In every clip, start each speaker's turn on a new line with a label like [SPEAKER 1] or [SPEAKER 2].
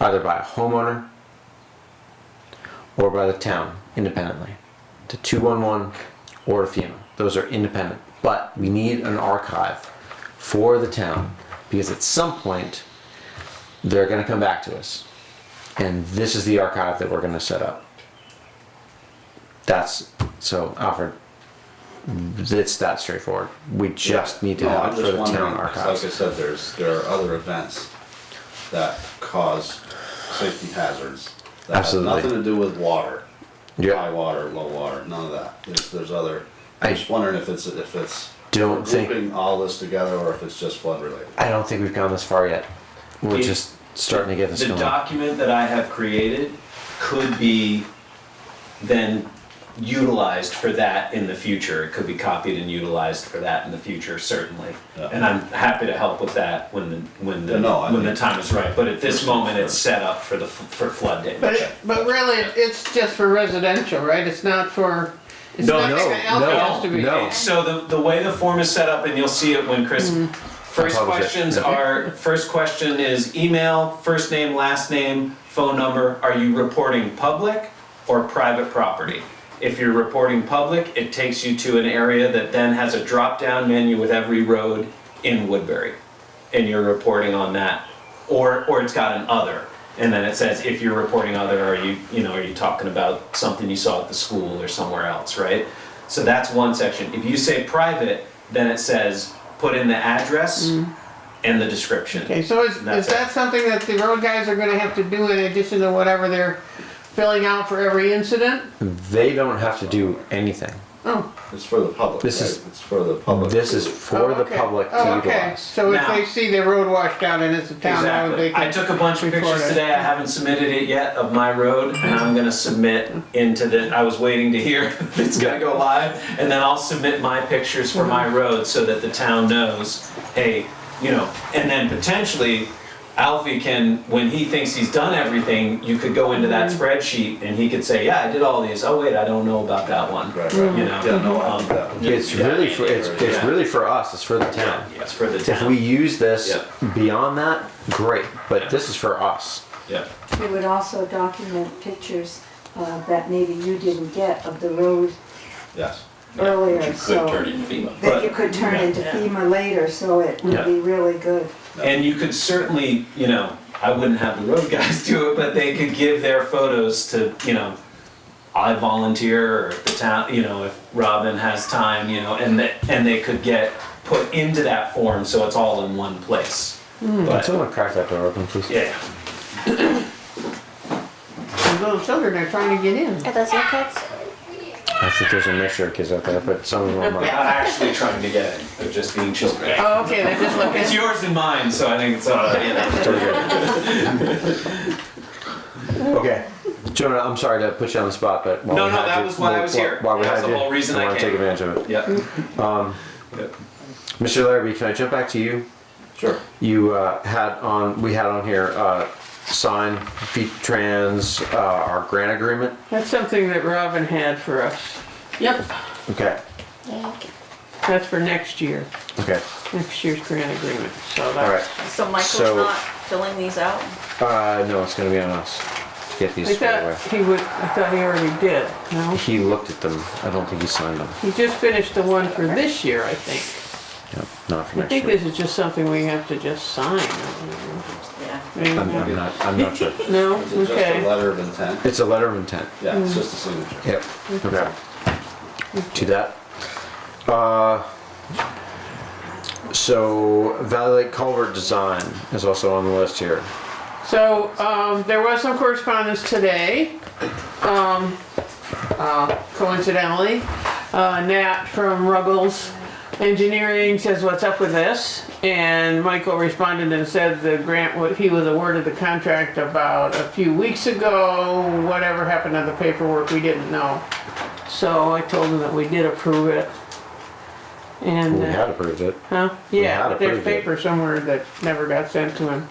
[SPEAKER 1] either by a homeowner or by the town independently to 211 or to FEMA. Those are independent. But we need an archive for the town because at some point they're going to come back to us. And this is the archive that we're going to set up. That's so, Alfred. It's that straightforward. We just need to
[SPEAKER 2] No,
[SPEAKER 1] have
[SPEAKER 2] I'm
[SPEAKER 1] it for
[SPEAKER 2] just
[SPEAKER 1] the
[SPEAKER 2] wondering,
[SPEAKER 1] town
[SPEAKER 2] 'cause
[SPEAKER 1] archives.
[SPEAKER 2] Like I said, there's, there are other events that cause safety hazards. That have
[SPEAKER 1] Absolutely.
[SPEAKER 2] nothing to do with water,
[SPEAKER 1] Yeah.
[SPEAKER 2] high water, low water, none of that. There's, there's other,
[SPEAKER 1] I
[SPEAKER 2] I'm just wondering if it's, if it's
[SPEAKER 1] don't think-
[SPEAKER 2] grouping all this together or if it's just flood related.
[SPEAKER 1] I don't think we've gone this far yet. We're
[SPEAKER 3] Yeah.
[SPEAKER 1] just starting to get this
[SPEAKER 3] The
[SPEAKER 1] going.
[SPEAKER 3] document that I have created could be then utilized for that in the future. It could be copied and utilized for that in the future, certainly.
[SPEAKER 2] Yeah.
[SPEAKER 3] And I'm happy to help with that when the, when the,
[SPEAKER 2] No, I
[SPEAKER 3] when the
[SPEAKER 2] mean-
[SPEAKER 3] time is right. But at this moment, it's set up for the, f- for flood
[SPEAKER 4] But,
[SPEAKER 3] damage.
[SPEAKER 4] it, but really, it- it's just for residential, right? It's not for, it's
[SPEAKER 3] No,
[SPEAKER 4] nothing
[SPEAKER 1] no,
[SPEAKER 4] else
[SPEAKER 1] no,
[SPEAKER 4] that has to be.
[SPEAKER 1] no.
[SPEAKER 4] added.
[SPEAKER 3] So the, the way the form is set up, and you'll see it when Chris, first
[SPEAKER 1] I'll publish it. Mm-hmm.
[SPEAKER 3] questions
[SPEAKER 1] Yeah.
[SPEAKER 3] are, first question is email, first name, last name, phone number. Are you reporting public or private property? If you're reporting public, it takes you to an area that then has a drop-down menu with every road in Woodbury. And you're reporting on that. Or, or it's got an other. And then it says, if you're reporting other, are you, you know, are you talking about something you saw at the school or somewhere else, right? So that's one section. If you say private, then it says, put in the address and the description.
[SPEAKER 4] Okay, so is,
[SPEAKER 3] That's
[SPEAKER 4] is
[SPEAKER 3] it.
[SPEAKER 4] that something that the road guys are gonna have to do in addition to whatever they're filling out for every incident?
[SPEAKER 1] They don't have to do anything.
[SPEAKER 4] Oh,
[SPEAKER 2] It's for the public,
[SPEAKER 1] This
[SPEAKER 2] right?
[SPEAKER 1] is-
[SPEAKER 2] It's for the public.
[SPEAKER 1] This
[SPEAKER 2] to-
[SPEAKER 1] is for
[SPEAKER 4] oh,
[SPEAKER 1] the
[SPEAKER 4] okay.
[SPEAKER 1] public
[SPEAKER 4] Oh,
[SPEAKER 1] to
[SPEAKER 4] okay.
[SPEAKER 1] utilize.
[SPEAKER 4] So if
[SPEAKER 3] Now-
[SPEAKER 4] they see their road washed out and it's a town road, they
[SPEAKER 3] Exactly.
[SPEAKER 4] can.
[SPEAKER 3] I took a bunch of
[SPEAKER 4] report
[SPEAKER 3] pictures
[SPEAKER 4] it.
[SPEAKER 3] today. I haven't submitted it yet of my road, and I'm gonna submit into the. I was waiting to hear if it's gonna go live, and then I'll submit my pictures for
[SPEAKER 2] Mm-hmm.
[SPEAKER 3] my road so that the town knows. Hey, you know, and then potentially. Alfie can, when he thinks he's done everything, you could go into that
[SPEAKER 2] Mm-hmm.
[SPEAKER 3] spreadsheet and he could say, "Yeah, I did all these. Oh wait, I don't know about that one."
[SPEAKER 2] Right, right.
[SPEAKER 3] You know.
[SPEAKER 2] Yeah, no, I
[SPEAKER 3] Um,
[SPEAKER 2] think that would-
[SPEAKER 1] It's
[SPEAKER 3] Yeah.
[SPEAKER 1] really for it's, it's
[SPEAKER 3] Yeah.
[SPEAKER 1] really for us. It's for the town.
[SPEAKER 3] Yeah, it's for the
[SPEAKER 1] If
[SPEAKER 3] town.
[SPEAKER 1] we use this
[SPEAKER 3] Yeah.
[SPEAKER 1] beyond that, great. But this is for us.
[SPEAKER 3] yeah.
[SPEAKER 5] It would also document pictures uh, that maybe you didn't get of the road
[SPEAKER 2] Yes.
[SPEAKER 5] earlier,
[SPEAKER 6] Which you could turn
[SPEAKER 5] so.
[SPEAKER 6] into FEMA.
[SPEAKER 5] That you
[SPEAKER 3] But-
[SPEAKER 5] could turn into FEMA later, so it
[SPEAKER 3] Yeah.
[SPEAKER 5] would be really good.
[SPEAKER 3] And you could certainly, you know, I wouldn't have the road guys do it, but they could give their photos to, you know, I volunteer or if the town, you know, if Robin has time, you know, and that, and they could get put into that form, so it's all in one place.
[SPEAKER 1] But
[SPEAKER 3] But,
[SPEAKER 1] someone crack that door open, please.
[SPEAKER 3] yeah,
[SPEAKER 4] These Little children are trying to get in.
[SPEAKER 7] Are those your kids?
[SPEAKER 1] I think there's a mixture of kids out there, but someone will
[SPEAKER 3] they're
[SPEAKER 1] mind.
[SPEAKER 3] not actually trying to get it, they're just being children.
[SPEAKER 4] Oh, okay, they're just looking.
[SPEAKER 3] It's yours and mine, so I think it's, uh, you know.
[SPEAKER 1] Very good. okay. Jonah, I'm sorry to put you on the spot, but while
[SPEAKER 3] No,
[SPEAKER 1] we
[SPEAKER 3] no,
[SPEAKER 1] had
[SPEAKER 3] that
[SPEAKER 1] you-
[SPEAKER 3] was why I
[SPEAKER 1] while-
[SPEAKER 3] was here.
[SPEAKER 1] While we
[SPEAKER 3] That's
[SPEAKER 1] had
[SPEAKER 3] the
[SPEAKER 1] you,
[SPEAKER 3] whole reason I
[SPEAKER 1] wanna take
[SPEAKER 3] came.
[SPEAKER 1] advantage of it.
[SPEAKER 3] Yeah. Um, Yep.
[SPEAKER 1] Mr. Larrabee, can I jump back to you?
[SPEAKER 2] Sure.
[SPEAKER 1] You uh, had on, we had on here, uh, sign V-Trans, uh, our grant agreement.
[SPEAKER 4] That's something that Robin had for us. Yep.
[SPEAKER 1] Okay,
[SPEAKER 4] That's for next year,
[SPEAKER 1] okay,
[SPEAKER 4] next year's grant agreement, so
[SPEAKER 1] all
[SPEAKER 4] that's.
[SPEAKER 1] right.
[SPEAKER 7] So Michael's
[SPEAKER 1] So-
[SPEAKER 7] not filling these out?
[SPEAKER 1] Uh, no, it's gonna be on us. Get
[SPEAKER 4] I
[SPEAKER 1] these squared away.
[SPEAKER 4] thought he would, I thought he already did, no?
[SPEAKER 1] He looked at them. I don't think he signed them.
[SPEAKER 4] He just finished the one for this year, I think.
[SPEAKER 1] Yep, not for
[SPEAKER 4] I
[SPEAKER 1] next
[SPEAKER 4] think
[SPEAKER 1] year.
[SPEAKER 4] this is just something we have to just sign. I
[SPEAKER 7] Yeah.
[SPEAKER 4] don't
[SPEAKER 1] I'm,
[SPEAKER 4] know.
[SPEAKER 1] I'm not, I'm not sure.
[SPEAKER 4] No,
[SPEAKER 2] Is it just a
[SPEAKER 4] okay,
[SPEAKER 2] letter of intent?
[SPEAKER 1] It's a letter of intent.
[SPEAKER 2] Yeah, it's just a signature.
[SPEAKER 1] Yep. Okay. Do that. Uh, so Valley Lake Culvert Design is also on the list here.
[SPEAKER 4] so, um, there was some correspondence today. Um, uh, coincidentally, uh, Nat from Ruggles Engineering says, what's up with this? And Michael responded and said the grant, wa- he was awarded the contract about a few weeks ago, whatever happened to the paperwork, we didn't know. So I told him that we did approve it. And.
[SPEAKER 1] We
[SPEAKER 4] uh,
[SPEAKER 1] had approved it.
[SPEAKER 4] Huh?
[SPEAKER 1] had
[SPEAKER 4] Yeah, but there's
[SPEAKER 1] approved it.
[SPEAKER 4] paper somewhere that never got sent to him.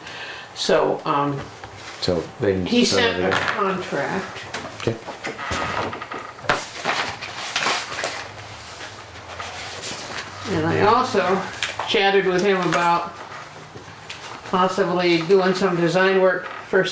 [SPEAKER 4] So, um,
[SPEAKER 1] So they didn't
[SPEAKER 4] he
[SPEAKER 1] send
[SPEAKER 4] sent
[SPEAKER 1] it
[SPEAKER 4] a
[SPEAKER 1] in.
[SPEAKER 4] contract.
[SPEAKER 1] Okay.
[SPEAKER 4] And I also chatted with him about possibly doing some design work